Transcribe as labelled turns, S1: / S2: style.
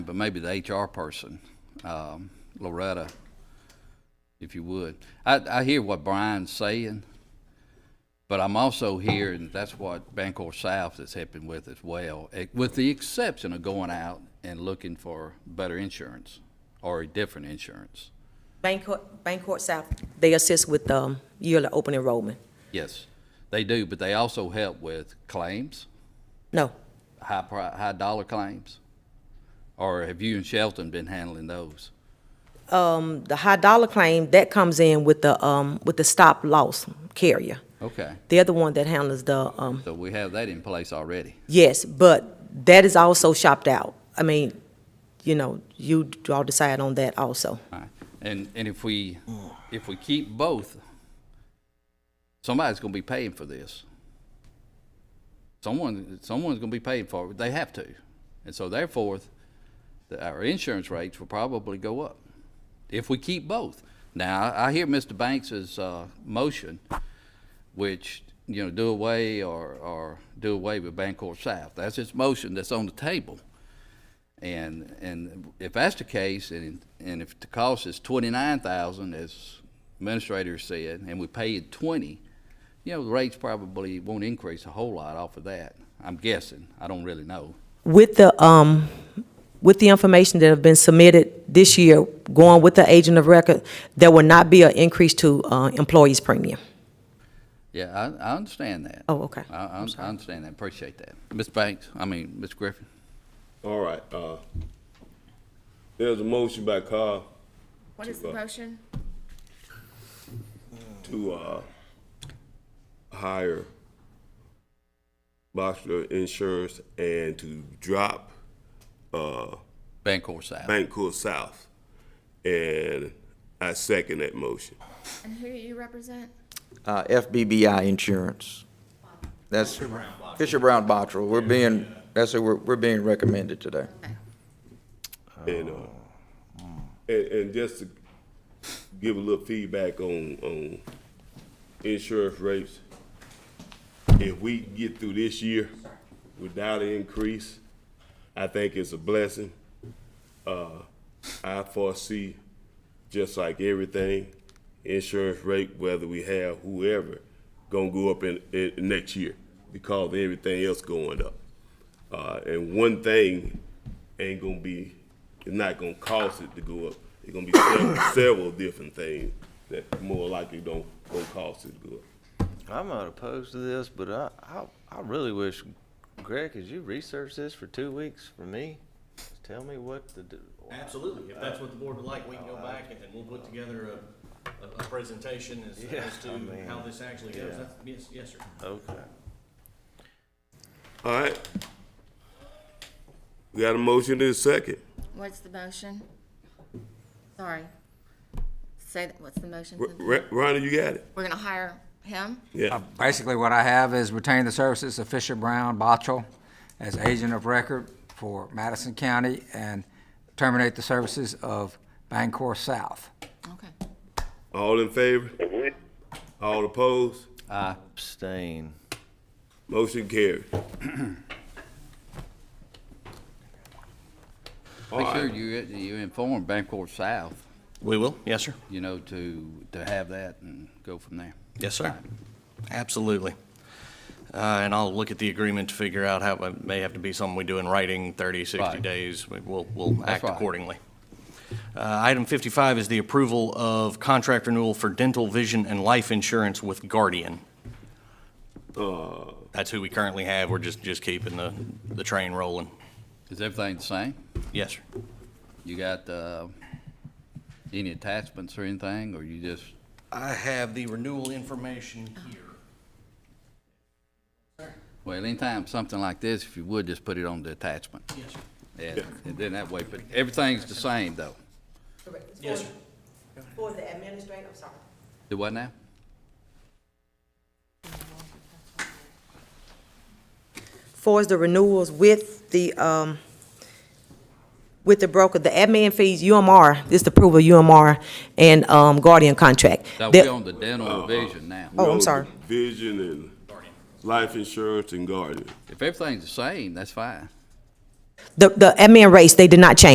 S1: but maybe the HR person, um, Loretta, if you would. I, I hear what Brian's saying, but I'm also here, and that's what Bancor South is helping with as well, eh, with the exception of going out and looking for better insurance or a different insurance.
S2: Bancourt, Bancourt South, they assist with um, yearly open enrollment.
S1: Yes, they do, but they also help with claims,
S2: No,
S1: high, pri- high dollar claims. Or have you and Shelton been handling those?
S2: Um, the high dollar claim, that comes in with the, um, with the stop loss carrier.
S1: Okay,
S2: They're the one that handles the, um,
S1: so we have that in place already.
S2: yes, but that is also shopped out. I mean, you know, you all decide on that also.
S1: Alright. And, and if we, if we keep both, somebody's gonna be paying for this. Someone, someone's gonna be paid for it, they have to. And so therefore, the- our insurance rates will probably go up if we keep both. Now, I I hear Mr. Banks's, uh, motion, which, you know, do away or, or do away with Bancorp South. That's his motion that's on the table. And, and if that's the case, and, and if the cost is twenty-nine thousand, as administrator said, and we pay it twenty, you know, the rates probably won't increase a whole lot off of that. I'm guessing. I don't really know.
S2: With the, um, with the information that have been submitted this year, going with the agent of record, there will not be an increase to, uh, employees' premium.
S1: Yeah, I, I understand that.
S2: Oh, okay.
S1: I, I I understand that. Appreciate that. Ms. Banks, I mean, Ms. Griffin.
S3: All right, uh, there's a motion by Carl
S4: What is the
S3: uh,
S4: motion?
S3: to, uh, hire Boxer Insurance and to drop, uh,
S1: Bancorp South.
S3: Bancourt South. And I second that motion.
S4: And who do you represent?
S5: uh, FBBI insurance. That's Fisher Brown Bottrell. We're being, that's what we're, we're being recommended today.
S3: And, uh, and, and just to give a little feedback on, on insurance rates, if we can get through this year without an increase, I think it's a blessing. Uh, I foresee, just like everything, insurance rate, whether we have whoever, gonna go up in, in, next year because of everything else going up. Uh, and one thing ain't gonna be, it's not gonna cause it to go up. It's gonna be several, several different things that more likely don't, gonna cause it to go up.
S6: I'm not opposed to this, but I, I, I really wish, Greg, could you research this for two weeks for me? Just Tell me what to do.
S7: Absolutely, if that's
S6: Uh,
S7: what the board would like, we can go back and then we'll put together a, a, a presentation as,
S6: Yeah,
S7: as to
S6: I mean,
S7: how this actually goes.
S6: yeah.
S7: That's- Yes, yes, sir.
S6: Okay.
S3: All right. We got a motion to a second.
S4: What's the motion? Sorry. Say, that. what's the motion?
S3: R- R- Ronnie, you got it?
S4: We're gonna hire him?
S3: Yeah.
S8: Uh, Basically, what I have is retain the services of Fisher Brown Bottrell as agent of record for Madison County and terminate the services of Bancor South.
S4: Okay.
S3: All in favor? All opposed?
S6: Abstain.
S3: Motion carried.
S1: Make sure you, you inform Bancorp South,
S7: We will, yes, sir.
S1: you know, to, to have that and go from there.
S7: Yes, sir. Absolutely. Uh, and I'll look at the agreement to figure out how, it may have to be something we do in writing, 30, 60
S1: Right.
S7: days. We- We'll, we'll act
S1: right.
S7: accordingly. Uh, Item 55 is the approval of contract renewal for dental, vision, and life insurance with Guardian.
S3: Uh,
S7: That's who we currently have. We're just, just keeping the, the train rolling.
S1: Is everything the same?
S7: Yes, sir.
S1: You got, uh, any attachments or anything, or you just?
S7: I have the renewal information here.
S1: Well, anytime something like this, if you would, just put it on the attachment.
S7: Yes, sir.
S1: And, and then that way, but everything's the same though.
S7: Yes, sir.
S2: For the administrator, I'm sorry.
S1: Do what now?
S2: far as the renewals with the, um, with the broker, the admin fees, UMR, this is the approval of UMR and, um, Guardian contract.
S1: Now,
S2: That-
S1: we're on the dental vision now.
S2: Oh, I'm sorry.
S3: Vision and life insurance and guardian.
S1: If everything's the same, that's fine.
S2: The, the admin rates, they did not change